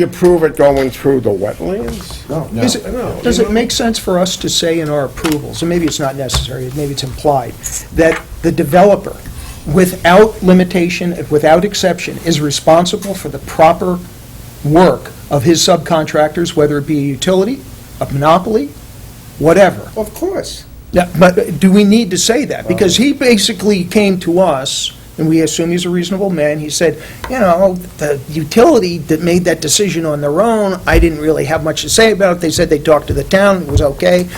You approve it going through the wetlands? No. Is it- I know, Does you it know. make sense for us to say in our approvals, and maybe it's not necessary, maybe it's implied, that the developer, without limitation, without exception, is responsible for the proper work of his subcontractors, whether it be a utility, a monopoly, whatever? Of course. Yeah, But do we need to say that? Because he basically came to us, and we assume he's a reasonable man, he said, you know, the utility that made that decision on their own, I didn't really have much to say about it, they said they talked to the town, it was okay.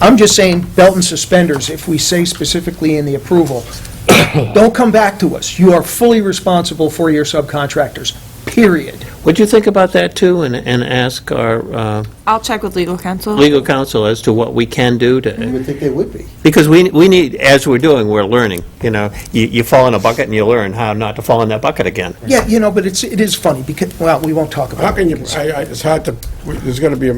I'm just saying, belt and suspenders, if we say specifically in the approval, don't come back to us, you are fully responsible for your subcontractors, period. Would you think about that, too, and and ask our uh, I'll check with legal counsel. legal counsel as to what we can do You to, would think they would be. because we we need, as we're doing, we're learning, you know? You you fall in a bucket and you learn how not to fall in that bucket again. Yeah, you know, but it's, it is funny, because, well, we won't talk about it. How can you, I, I, it's hard to, there's gonna be, a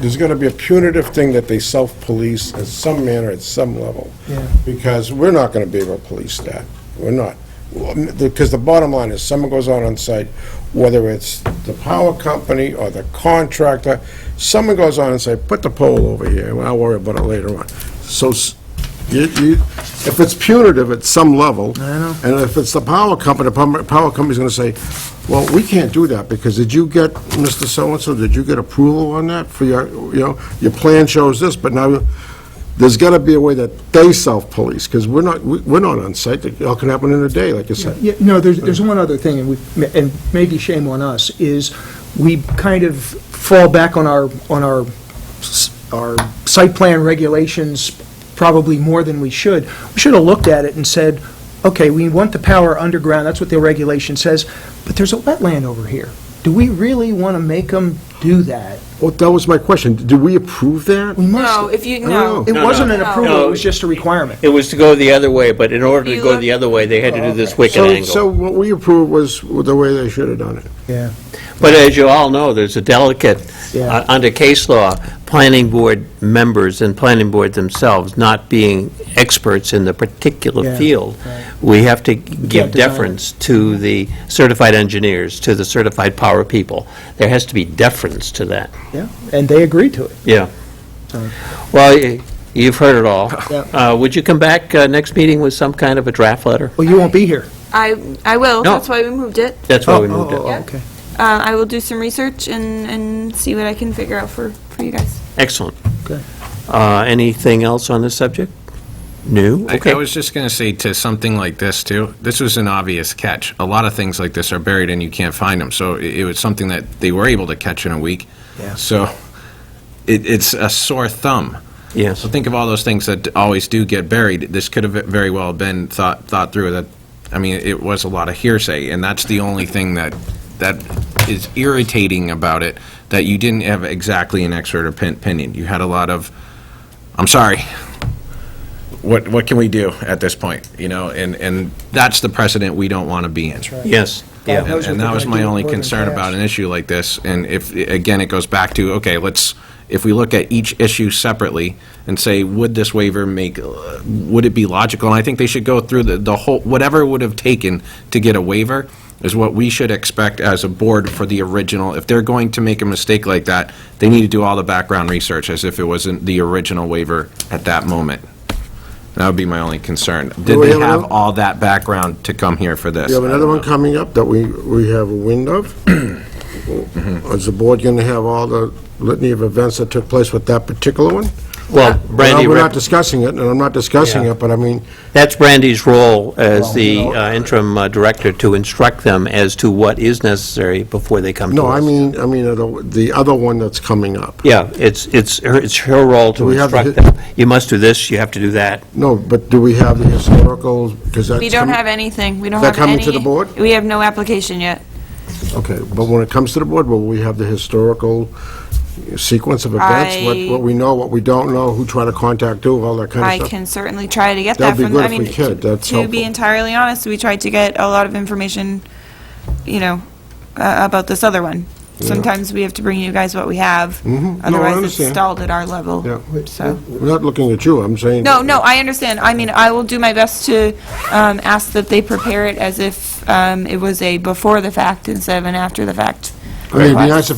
there's gonna be a punitive thing that they self-police in some manner, at some level. Yeah. Because we're not gonna be able to police that. We're not. Because the bottom line is, someone goes out on site, whether it's the power company or the contractor, someone goes on and say, put the pole over here, well, I'll worry about it later on. So, s- you, you, if it's punitive at some level. I know. And if it's the power company, the power power company's gonna say, well, we can't do that, because did you get, Mr. So-and-so, did you get approval on that for your, you know, your plan shows this, but now, there's gotta be a way that they self-police, because we're not, we- we're not on site, it all can happen in a day, like you said. Yeah, no, there's, there's one other thing, and we, and maybe shame on us, is we kind of fall back on our, on our, s- our site plan regulations probably more than we should. We should have looked at it and said, okay, we want the power underground, that's what the regulation says, but there's a wetland over here. Do we really want to make them do that? Well, that was my question, do we approve that? We must- No, if you, I no. don't It know. wasn't an No. approval, it was just a requirement. It was to go the other way, but in order to You go look- the other way, they had to do this wicked So, angle. so what we approved was the way they should have done it. Yeah. But as you all know, there's a delicate, Yeah. uh, under case law, planning board members and planning board themselves not being experts in the particular Yeah, field. right. We have to give deny it. deference to the certified engineers, to the certified power people. There has to be deference to that, Yeah, and they agreed to it. yeah. Sorry. Well, y- you've heard it all. Yeah. Uh, Would you come back uh, next meeting with some kind of a draft letter? Well, you won't be here. I, I will, No. that's why we moved it. That's why we moved Oh, oh, it. oh, okay. Uh, I will do some research and, and see what I can figure out for, for you guys. Excellent. oh. Good. Uh, Anything else on this subject? New? I- Okay. I was just going to say to something like this, too, this was an obvious catch. A lot of things like this are buried and you can't find them, so i- it was something that they were able to catch in a week. Yeah. So it- it's a sore thumb. Yes. So think of all those things that always do get buried. This could have very well been thought, thought through that, I mean, it was a lot of hearsay, and that's the only thing that, that is irritating about it, that you didn't have exactly an expert opin- opinion. You had a lot of, I'm sorry, what, what can we do at this point, you know? And, and that's the precedent we don't want to be in. That's right. Yes. Yeah. And and that was my only concern about an issue like this, and if, again, it goes back to, okay, let's, if we look at each issue separately and say, would this waiver make, uh, would it be logical? And I think they should go through the, the whole, whatever it would have taken to get a waiver is what we should expect as a board for the original. If they're going to make a mistake like that, they need to do all the background research as if it wasn't the original waiver at that moment. That would be my only concern. Did we they have have another- all that background to come here for this? We have I don't another one know. coming up that we, we have a wind of. Uh, Is the board going to have all the litany of events that took place with that particular one? Well, Brandy, Now, We're not rep- discussing it, and I'm not discussing Yeah. it, but I mean, that's Brandy's role as Well, the no. uh, interim uh, director, to instruct them as to what is necessary before they come to no, us. I mean, I mean, uh, the the other one that's coming up. Yeah, it's, it's her, it's her role to We have the instruct hi- them. You must do this, you have to do that. No, but do we have the historical, because that's... We don't coming- have anything, we don't Is that have coming any. to the board? We have no application yet. Okay, but when it comes to the board, will we have the historical sequence of events? I- What what we know, what we don't know, who tried to contact who, all that kind of I stuff? can certainly try to get that That'd be from, good I if mean, we could. That's to helpful. be entirely honest, we tried to get a lot of information, you know, uh, about this other one. Sometimes we have to bring you guys what we have, Mhm. No, I otherwise it's understand. stalled at our level, Yeah. so. We're not looking at you, I'm saying... No, no, I understand. I mean, I will do my best to um, ask that they prepare it as if um, it was a before the fact instead of an after the fact I mean, it'd be nice if